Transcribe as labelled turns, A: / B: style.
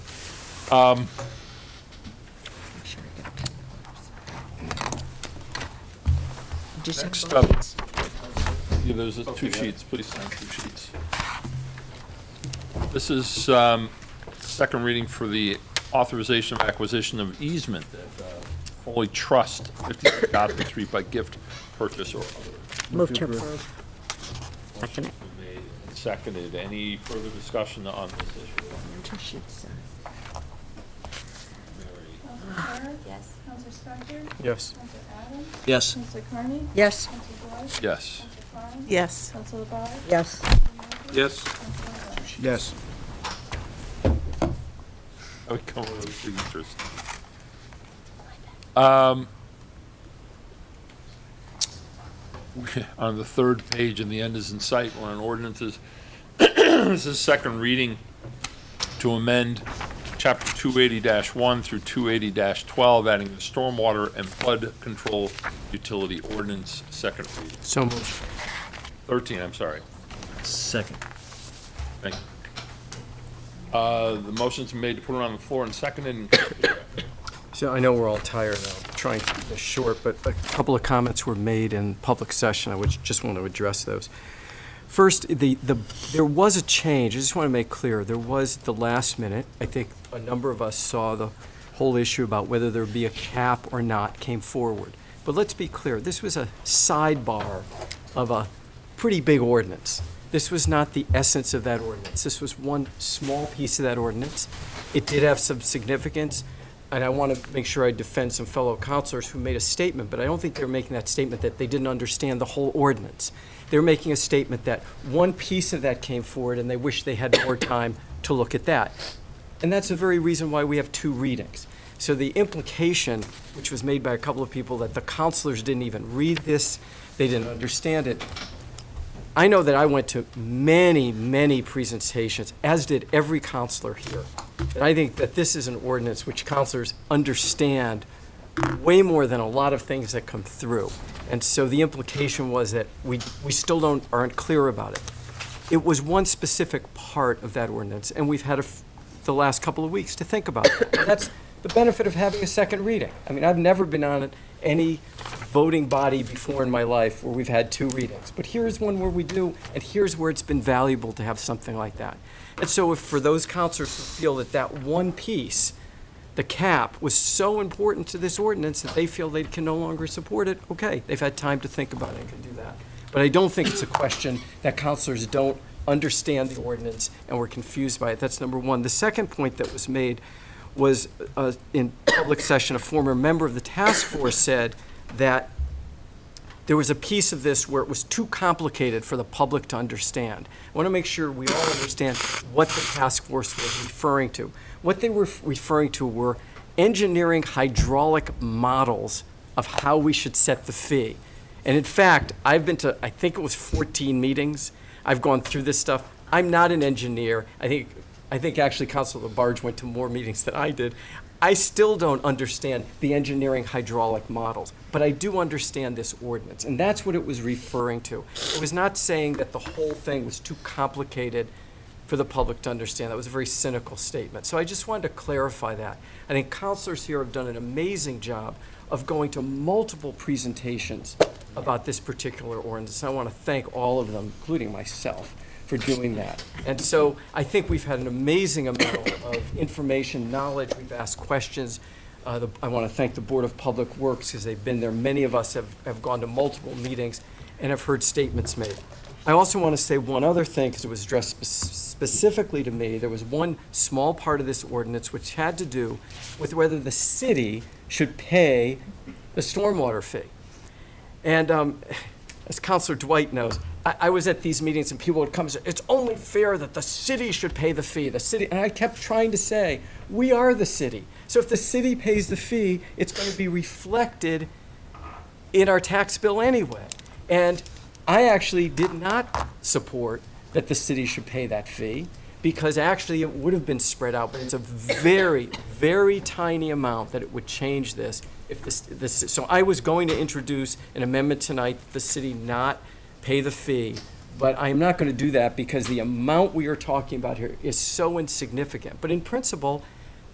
A: Next up, yeah, there's uh, two sheets, please sign two sheets. This is um, second reading for the authorization of acquisition of easement at uh, Foley Trust, 50 Godfrey Street by gift purchase or other.
B: Move to approve. Second it.
A: Made and Seconded, any further discussion on this issue? Mary?
C: Counselor Carr?
B: Yes.
C: Counselor Spector?
D: Yes.
C: Counselor Adams?
E: Yes.
C: Counselor Carney?
B: Yes.
C: Counselor Dwight?
A: Yes.
C: Counselor Klein?
F: Yes.
C: Counselor Barr?
B: Yes.
E: Yes.
C: Counselor Miller?
D: Yes.
A: I would come with those signatures. Um, On the third page, and the end is in sight, we're on ordinances. This is second reading to amend Chapter 280-1 through 280-12, adding the stormwater and flood control utility ordinance, second reading.
D: So moved.
A: 13, I'm sorry.
E: Second.
A: Thank you. Uh, The motion's been made to put it on the floor and seconded, and
D: So I know we're all tired now, trying to keep this short, but a couple of comments were made in public session. I would just want to address those. First, the, the, there was a change, I just want to make clear, there was at the last minute, I think a number of us saw the whole issue about whether there would be a cap or not came forward. But let's be clear, this was a sidebar of a pretty big ordinance. This was not the essence of that ordinance, this was one small piece of that ordinance. It did have some significance, and I want to make sure I defend some fellow counselors who made a statement, but I don't think they're making that statement that they didn't understand the whole ordinance. They're making a statement that one piece of that came forward and they wish they had more time to look at that. And that's the very reason why we have two readings. So the implication, which was made by a couple of people, that the counselors didn't even read this, they didn't understand it, I know that I went to many, many presentations, as did every counselor here. And I think that this is an ordinance which counselors understand way more than a lot of things that come through. And so the implication was that we, we still don't, aren't clear about it. It was one specific part of that ordinance, and we've had a f the last couple of weeks to think about it. And That's the benefit of having a second reading. I mean, I've never been on any voting body before in my life where we've had two readings. But here's one where we do, and here's where it's been valuable to have something like that. And so if, for those counselors who feel that that one piece, the cap, was so important to this ordinance that they feel they can no longer support it, okay, they've had time to think about it, and can do that. But I don't think it's a question that counselors don't understand the ordinance and were confused by it. That's number one. The second point that was made was uh, in public session, a former member of the task force said that there was a piece of this where it was too complicated for the public to understand. I want to make sure we all understand what the task force was referring to. What they were referring to were engineering hydraulic models of how we should set the fee. And in fact, I've been to, I think it was 14 meetings. I've gone through this stuff. I'm not an engineer. I think, I think actually Council Labarge went to more meetings than I did. I still don't understand the engineering hydraulic models, but I do understand this ordinance, and that's what it was referring to. It was not saying that the whole thing was too complicated for the public to understand. That was a very cynical statement. So I just wanted to clarify that. I think counselors here have done an amazing job of going to multiple presentations about this particular ordinance. And I want to thank all of them, including myself, for doing that. And so I think we've had an amazing amount of information, knowledge. We've asked questions. Uh, the- I want to thank the Board of Public Works because they've been there. Many of us have, have gone to multiple meetings and have heard statements made. I also want to say one other thing, because it was addressed spe- specifically to me. There was one small part of this ordinance which had to do with whether the city should pay the stormwater fee. And um, as Counselor Dwight knows, I, I was at these meetings and people would come and say, it's only fair that the city should pay the fee, the city. And I kept trying to say, we are the city. So if the city pays the fee, it's going to be reflected in our tax bill anyway. And I actually did not support that the city should pay that fee because actually it would have been spread out, but it's a very, very tiny amount that it would change this. If this, this, so I was going to introduce an amendment tonight, that the city not pay the fee, but I am not going to do that because the amount we are talking about here is so insignificant. But in principle,